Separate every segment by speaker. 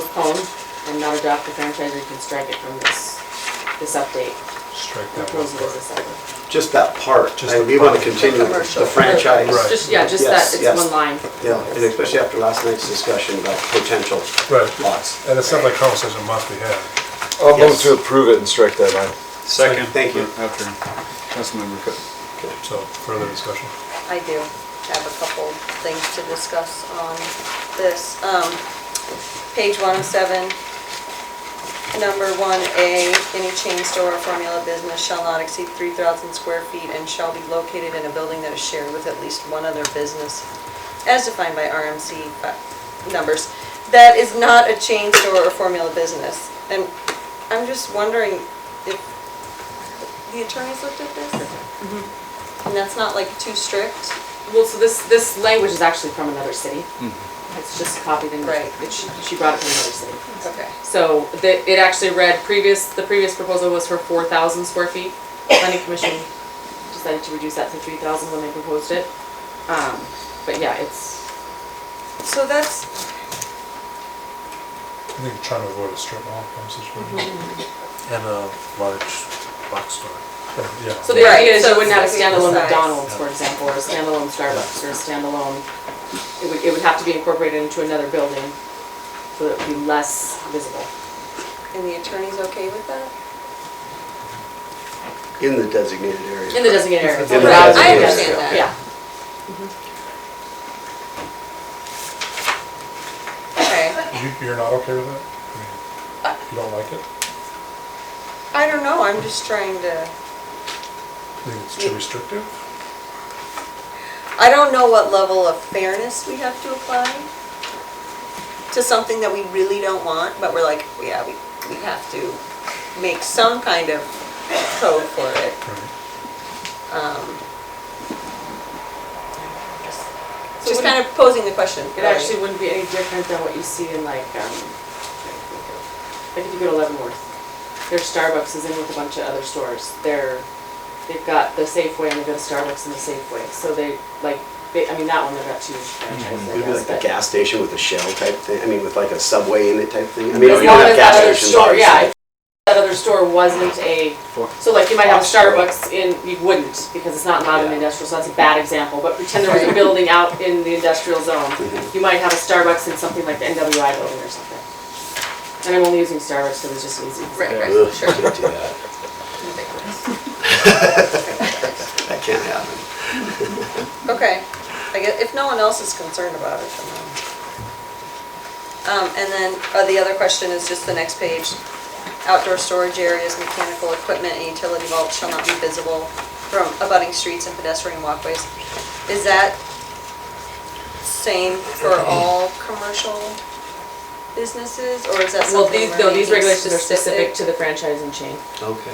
Speaker 1: postponed and not adopt the franchise, you can strike it from this, this update.
Speaker 2: Strike that one.
Speaker 1: Approves it as a separate.
Speaker 3: Just that part,
Speaker 2: Just
Speaker 3: I-
Speaker 2: the
Speaker 3: we want
Speaker 2: part.
Speaker 3: to continue
Speaker 4: Commercial.
Speaker 3: the franchise.
Speaker 2: Right.
Speaker 1: Just, yeah, just that,
Speaker 3: Yes,
Speaker 1: it's
Speaker 3: yes.
Speaker 1: one line.
Speaker 3: Yeah, and especially after last night's discussion about potential
Speaker 2: Right.
Speaker 3: lots.
Speaker 2: And it's not like conversation must be had.
Speaker 5: I'll move
Speaker 3: Yes.
Speaker 5: to approve it and strike that line.
Speaker 6: Second.
Speaker 3: Thank you.
Speaker 6: After Councilmember Cook.
Speaker 2: So further discussion.
Speaker 4: I do have a couple things to discuss on this. Um, Page 107, number 1A, any chain store or formula business shall not exceed 3,000 square feet and shall be located in a building that is shared with at least one other business, as defined by RMC uh, numbers. That is not a chain store or formula business. And I'm just wondering if the attorneys looked at this? And that's not like too strict?
Speaker 1: Well, so this, this language is actually from another city.
Speaker 3: Mm-hmm.
Speaker 1: It's just copied and,
Speaker 4: Right.
Speaker 1: it- she she brought it from another city.
Speaker 4: Okay.
Speaker 1: So the, it actually read previous, the previous proposal was for four thousand square feet. Planning commission decided to reduce that to three thousand when they proposed it. Um, but yeah, it's,
Speaker 4: So that's,
Speaker 2: I think you're trying to avoid a strip mall kind of situation.
Speaker 5: Mm-hmm.
Speaker 7: and a large box store.
Speaker 2: Yeah.
Speaker 1: so the
Speaker 4: Right,
Speaker 1: idea is
Speaker 4: so
Speaker 1: you wouldn't have a
Speaker 4: it's like
Speaker 1: standalone
Speaker 4: the size.
Speaker 1: McDonald's, for example, or a standalone Starbucks, or a standalone, it would, it would have to be incorporated into another building so that it would be less visible.
Speaker 4: and the attorney's okay with that?
Speaker 3: In the designated area.
Speaker 1: In the designated area.
Speaker 3: In the
Speaker 1: Without-
Speaker 3: designated
Speaker 4: I understand
Speaker 3: area.
Speaker 4: that.
Speaker 1: Yeah.
Speaker 4: Okay.
Speaker 2: You, you're not okay with that? I mean, You don't like it?
Speaker 4: I don't know, I'm just trying to,
Speaker 2: You think it's too restrictive?
Speaker 4: I don't know what level of fairness we have to apply to something that we really don't want, but we're like, yeah, we, we have to make some kind of code for it.
Speaker 2: Right.
Speaker 4: Um, just-
Speaker 1: So
Speaker 4: Just
Speaker 1: what do
Speaker 4: kind
Speaker 1: you-
Speaker 4: of posing the question.
Speaker 1: It
Speaker 4: really.
Speaker 1: actually wouldn't be any different than what you see in like, um, like if you go to Leavenworth, their Starbucks is in with a bunch of other stores. They're, they've got the Safeway and they've got Starbucks and the Safeway. So they, like, they, I mean, that one, they've got two franchises, I
Speaker 3: Maybe
Speaker 1: guess,
Speaker 3: like the
Speaker 1: but.
Speaker 3: gas station with a shell type thing, I mean, with like a subway in it type thing. I mean,
Speaker 1: As
Speaker 3: we
Speaker 1: long as
Speaker 3: don't have gas
Speaker 1: that other
Speaker 3: stations,
Speaker 1: store, yeah,
Speaker 3: obviously.
Speaker 1: if that other store wasn't a, so like you might have a Starbucks in, you wouldn't, because it's not not an
Speaker 3: Yeah.
Speaker 1: industrial, so that's a bad example, but pretend there was a
Speaker 4: Right.
Speaker 1: building out in the industrial zone.
Speaker 3: Mm-hmm.
Speaker 1: You might have a Starbucks in something like the NWI building or something. And I'm only using Starbucks because it's just easy.
Speaker 4: Right, right,
Speaker 3: Ugh,
Speaker 4: sure.
Speaker 3: Can't do that. That can't happen.
Speaker 4: Okay, I guess, if no one else is concerned about it, then. um, Um, and then, uh, the other question is just the next page. Outdoor storage areas, mechanical equipment, and utility vaults shall not be visible from abutting streets and pedestrian walkways. Is that same for all commercial businesses, or is that something?
Speaker 1: Well, these,
Speaker 4: we're
Speaker 1: no, these
Speaker 4: making
Speaker 1: regulations are specific to the franchising chain.
Speaker 3: Okay.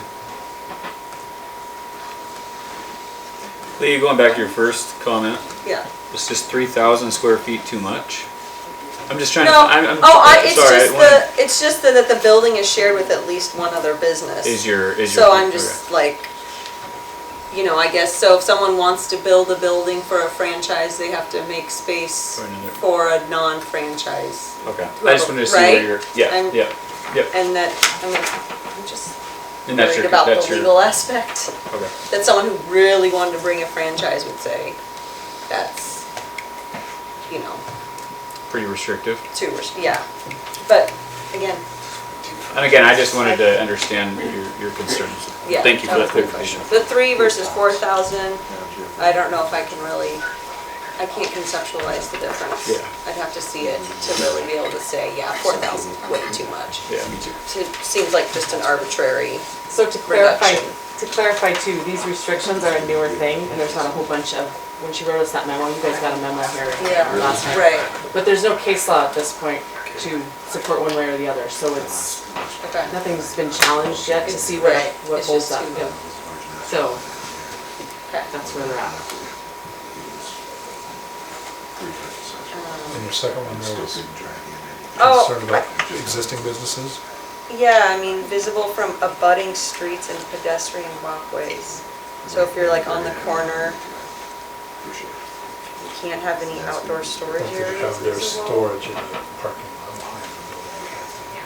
Speaker 6: Lee, going back to your first comment,
Speaker 4: Yeah.
Speaker 6: it's just three thousand square feet too much? I'm just trying to,
Speaker 4: No,
Speaker 6: I'm, I'm.
Speaker 4: oh, I, it's
Speaker 6: sorry, I
Speaker 4: just
Speaker 6: wanna-
Speaker 4: the, it's just that the building is shared with at least one other business.
Speaker 6: Is your, is your.
Speaker 4: So I'm just like, you know, I guess, so if someone wants to build a building for a franchise, they have to make space
Speaker 6: For another-
Speaker 4: for a non-franchise.
Speaker 6: Okay, I just wanted to see
Speaker 4: Right?
Speaker 6: where you're, yeah,
Speaker 4: I'm-
Speaker 6: yeah, yep.
Speaker 4: And that, I mean, I'm just
Speaker 6: And that's
Speaker 4: worried
Speaker 6: your,
Speaker 4: about
Speaker 6: that's
Speaker 4: the
Speaker 6: your,
Speaker 4: legal aspect,
Speaker 6: okay.
Speaker 4: that someone who really wanted to bring a franchise would say, that's, you know,
Speaker 6: Pretty restrictive.
Speaker 4: too, res- yeah. But again,
Speaker 6: And again, I just wanted to understand your, your concerns.
Speaker 4: Yeah,
Speaker 6: Thank you for
Speaker 4: that
Speaker 6: that
Speaker 4: was my
Speaker 6: clarification.
Speaker 4: the three versus four thousand, I don't know if I can really, I can't conceptualize the difference.
Speaker 6: Yeah.
Speaker 4: I'd have to see it to really be able to say, yeah, four thousand, way too much.
Speaker 6: Yeah, me too.
Speaker 4: It seems like just an arbitrary,
Speaker 1: So to clarify,
Speaker 4: Reduction.
Speaker 1: to clarify too, these restrictions are a newer thing, and there's not a whole bunch of, when she wrote us that memo, you guys got a memo here
Speaker 4: Yeah.
Speaker 1: last time.
Speaker 4: right,
Speaker 1: But there's no case law at this point to support one way or the other, so it's,
Speaker 4: okay.
Speaker 1: nothing's been challenged yet to see what,
Speaker 4: Right,
Speaker 1: what
Speaker 4: it's
Speaker 1: holds
Speaker 4: just
Speaker 1: up.
Speaker 4: too-
Speaker 1: yeah. So,
Speaker 4: Okay.
Speaker 1: that's where they're at.
Speaker 2: And your second one there was
Speaker 4: Oh.
Speaker 2: concerned about existing businesses?
Speaker 4: Yeah, I mean, visible from abutting streets and pedestrian walkways. So if you're like on the corner, you can't have any outdoor storage
Speaker 2: Don't they
Speaker 4: areas
Speaker 2: have their
Speaker 4: visible.
Speaker 2: storage in the parking